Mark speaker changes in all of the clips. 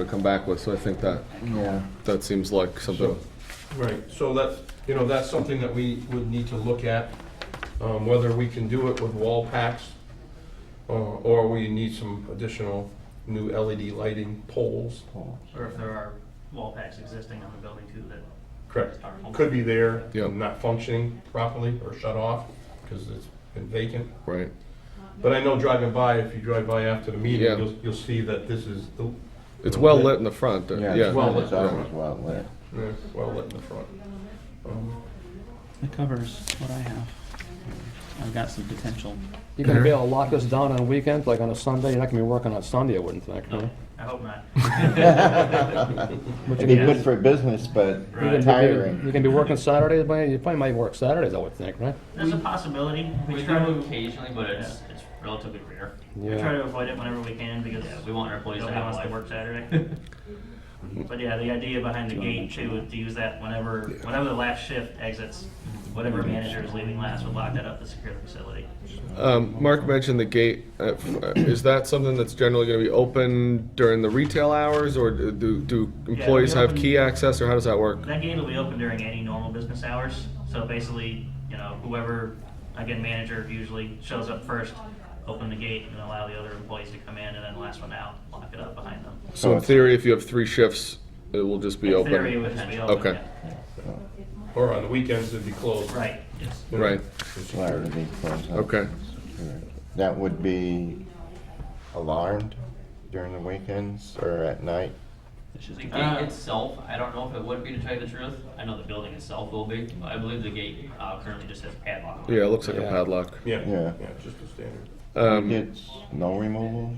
Speaker 1: to come back with, so I think that,
Speaker 2: Yeah.
Speaker 1: that seems like something.
Speaker 3: Right, so that's, you know, that's something that we would need to look at, um, whether we can do it with wall packs, or, or we need some additional new LED lighting poles.
Speaker 4: Or if there are wall packs existing on the building too that
Speaker 3: Correct.
Speaker 4: are.
Speaker 3: Could be there,
Speaker 1: Yeah.
Speaker 3: not functioning properly or shut off, because it's been vacant.
Speaker 1: Right.
Speaker 3: But I know driving by, if you drive by after the
Speaker 1: Yeah.
Speaker 3: meeting, you'll, you'll see that this is, the-
Speaker 1: It's well lit in the front, uh,
Speaker 2: Yeah,
Speaker 1: yeah.
Speaker 2: it's
Speaker 3: well
Speaker 2: always
Speaker 3: lit.
Speaker 2: well lit.
Speaker 3: yeah, eh, well lit in the front. Um,
Speaker 5: It covers what I have. I've got some potential.
Speaker 6: You're gonna be able to lock us down on a weekend, like on a Sunday? You're not gonna be working on Sunday, I wouldn't think, huh?
Speaker 4: I hope not.
Speaker 2: It'd be good for business, but
Speaker 4: Right.
Speaker 6: You're
Speaker 2: tiring.
Speaker 6: gonna be working Saturdays, but you probably might work Saturdays, I would think, right?
Speaker 4: There's a possibility.
Speaker 7: We try to occasionally, but
Speaker 4: Yeah,
Speaker 7: it's
Speaker 4: it's-
Speaker 7: relatively rare.
Speaker 4: We try
Speaker 6: Yeah.
Speaker 4: to avoid it whenever we can because
Speaker 7: Yeah, we want our employees to
Speaker 4: nobody
Speaker 7: have
Speaker 4: wants to
Speaker 7: life.
Speaker 4: work Saturday. But yeah, the idea behind the gate too, is to use that whenever, whenever the last shift exits, whatever manager is leaving last would lock that up to secure the facility.
Speaker 1: Um, Mark mentioned the gate. Uh, f- uh, is that something that's generally going to be open during the retail hours, or do- do, do employees
Speaker 4: we
Speaker 1: have
Speaker 4: open-
Speaker 1: key access, or how does that work?
Speaker 4: That gate will be open during any normal business hours, so basically, you know, whoever, again, manager usually shows up first, open the gate and allow the other employees to come in, and then last one out, lock it up behind them.
Speaker 1: So in theory, if you have three shifts, it will just be
Speaker 4: In
Speaker 1: open.
Speaker 4: theory, it would just be open,
Speaker 1: Okay.
Speaker 4: yeah.
Speaker 3: Or on the weekends, it'd be closed.
Speaker 4: Right, yes.
Speaker 3: you know,
Speaker 1: Right.
Speaker 3: for security.
Speaker 2: Saturday be closed up.
Speaker 1: Okay.
Speaker 2: That would be alarmed during the weekends or at night?
Speaker 5: It's
Speaker 7: The
Speaker 5: just
Speaker 7: gate
Speaker 5: uh,
Speaker 7: itself, I don't know if it would be to tell you the truth. I know the building itself will be. but I believe the gate uh, currently just has padlock. on it.
Speaker 1: Yeah, it looks like a
Speaker 6: Yeah.
Speaker 1: padlock.
Speaker 3: Yeah,
Speaker 2: Yeah.
Speaker 3: yeah, just a standard.
Speaker 1: Um,
Speaker 2: It's no removal?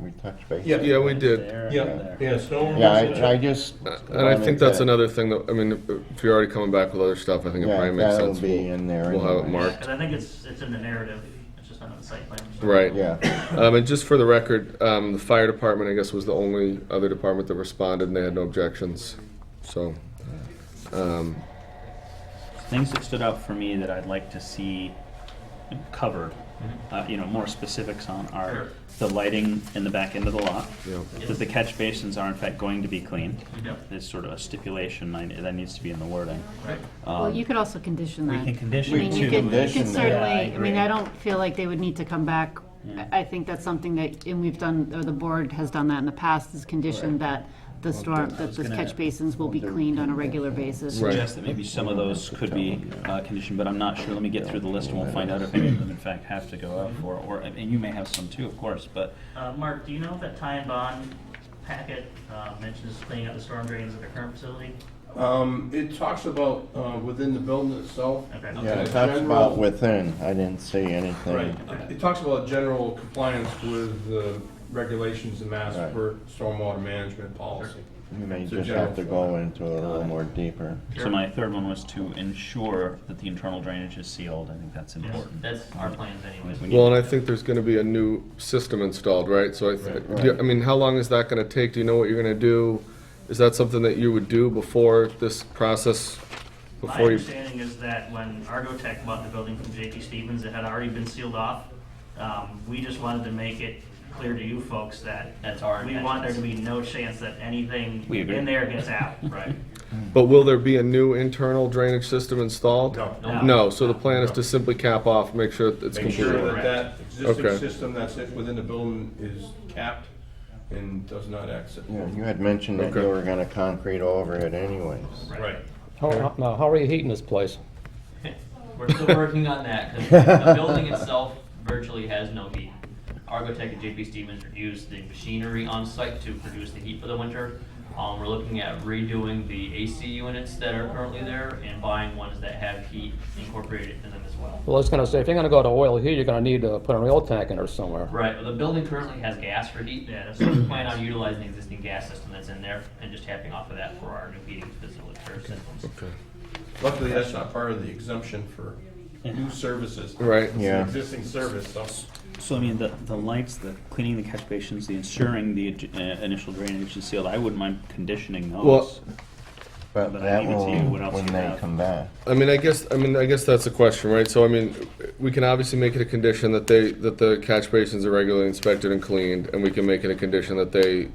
Speaker 2: We touch base?
Speaker 3: Yeah.
Speaker 1: yeah, we did.
Speaker 5: there,
Speaker 3: Yeah,
Speaker 5: there.
Speaker 3: yeah, snow.
Speaker 2: Yeah, I, I just.
Speaker 1: Uh, And I think that's another thing that, I mean, if you're already coming back with other stuff, I think it
Speaker 2: Yeah,
Speaker 1: probably makes
Speaker 2: that'll
Speaker 1: sense.
Speaker 2: be in there.
Speaker 1: We'll have it
Speaker 2: anyway.
Speaker 1: marked.
Speaker 4: Because I think it's, it's in the narrative, it's just not in the site plan.
Speaker 1: Right.
Speaker 2: Yeah,
Speaker 1: Um, and just for the record, um, the fire department, I guess, was the only other department that responded and they had no objections. So, um,
Speaker 5: Things that stood out for me that I'd like to see covered. Uh, you know, more specifics on are
Speaker 7: Sure.
Speaker 5: the lighting in the back end of the lot.
Speaker 1: yeah.
Speaker 5: That the catch basins are in fact going to be cleaned.
Speaker 7: Yep.
Speaker 5: There's sort of a stipulation I, that needs to be in the wording.
Speaker 7: Right.
Speaker 5: Um,
Speaker 8: Well, you could also condition
Speaker 5: we
Speaker 8: that.
Speaker 5: can condition
Speaker 8: I mean,
Speaker 5: it
Speaker 8: you
Speaker 5: too.
Speaker 8: could, you
Speaker 2: Condition
Speaker 8: could
Speaker 2: that.
Speaker 8: certainly, I mean,
Speaker 5: agree.
Speaker 8: I don't feel like they would need to come back.
Speaker 5: Yeah.
Speaker 8: I I think that's something that, and we've done, or the board has done that in the past, is conditioned that the storm, that the
Speaker 5: gonna-
Speaker 8: catch basins will be cleaned on a regular basis.
Speaker 1: Right.
Speaker 5: suggest that maybe some of those could be uh, conditioned, but I'm not sure. Let me get through the list and we'll find out if any of them in fact have to go out for, or, and you may have some too, of course, but
Speaker 4: Uh, Mark, do you know if that tie and bond packet uh, mentions cleaning up the storm drains at the current facility?
Speaker 3: Um, it talks about, uh, within the building itself.
Speaker 4: Okay.
Speaker 2: yeah,
Speaker 3: a
Speaker 2: it talks
Speaker 3: general-
Speaker 2: about within, I didn't see anything.
Speaker 3: Right, It- it talks about general compliance with the regulations and mass
Speaker 2: Right.
Speaker 3: for stormwater management policy.
Speaker 2: You may
Speaker 3: So
Speaker 2: just
Speaker 3: general
Speaker 2: have to go into it a little more deeper.
Speaker 5: So my third one was to ensure that the internal drainage is sealed. I think that's important.
Speaker 7: That's our plans anyways.
Speaker 5: We need-
Speaker 1: Well, and I think there's gonna be a new system installed, right? So I, th-
Speaker 2: Right.
Speaker 1: do- I mean, how long is that gonna take? Do you know what you're gonna do? Is that something that you would do before this process?
Speaker 4: My
Speaker 1: Before you,
Speaker 4: understanding is that when Argotech bought the building from JP Stevens, it had already been sealed off. Um, We just wanted to make it clear to you folks that
Speaker 7: That's our
Speaker 4: we want there to
Speaker 7: intentions.
Speaker 4: be no chance that anything
Speaker 5: We agree.
Speaker 4: in there gets out.
Speaker 7: Right.
Speaker 1: but will there be a new internal drainage system installed?
Speaker 3: No.
Speaker 7: No.
Speaker 1: No, so the plan is to simply cap off, make sure it's
Speaker 3: Make sure
Speaker 1: completely.
Speaker 3: that that
Speaker 1: Okay.
Speaker 3: existing system that's it within the building is capped and does not exit.
Speaker 2: Yeah, you had mentioned that
Speaker 1: Okay.
Speaker 2: you were gonna concrete over it anyways.
Speaker 3: Right.
Speaker 6: How, how- now, how are you heating this place?
Speaker 7: We're still working on that, because the building itself virtually has no heat. Argotech and JP Stevens reduced the machinery on site to produce the heat for the winter. Um, we're looking at redoing the AC units that are currently there and buying ones that have heat incorporated in them as well.
Speaker 6: Well, I was gonna say, if you're gonna go to oil heat, you're gonna need to put an oil tank in there somewhere.
Speaker 7: Right, well, the building currently has gas for heat,
Speaker 4: Yeah, that's
Speaker 7: so we plan on utilizing the existing gas system that's in there and just tapping off of that for our new heating facility or systems.
Speaker 3: Luckily, that's not part of the exemption for new services.
Speaker 1: Right.
Speaker 3: It's an
Speaker 2: Yeah.
Speaker 3: Existing service, so.
Speaker 5: So I mean, the, the lights, the cleaning the catch basins, the ensuring the uh, initial drainage is sealed, I wouldn't mind conditioning
Speaker 1: Well,
Speaker 5: those.
Speaker 2: But
Speaker 5: But I
Speaker 2: that
Speaker 5: leave it to
Speaker 2: will,
Speaker 5: you what else
Speaker 2: when
Speaker 5: you
Speaker 2: they
Speaker 5: have.
Speaker 2: come back.
Speaker 1: I mean, I guess, I mean, I guess that's the question, right? So, I mean, we can obviously make it a condition that they, that the catch basins are regularly inspected and cleaned, and we can make it a condition that they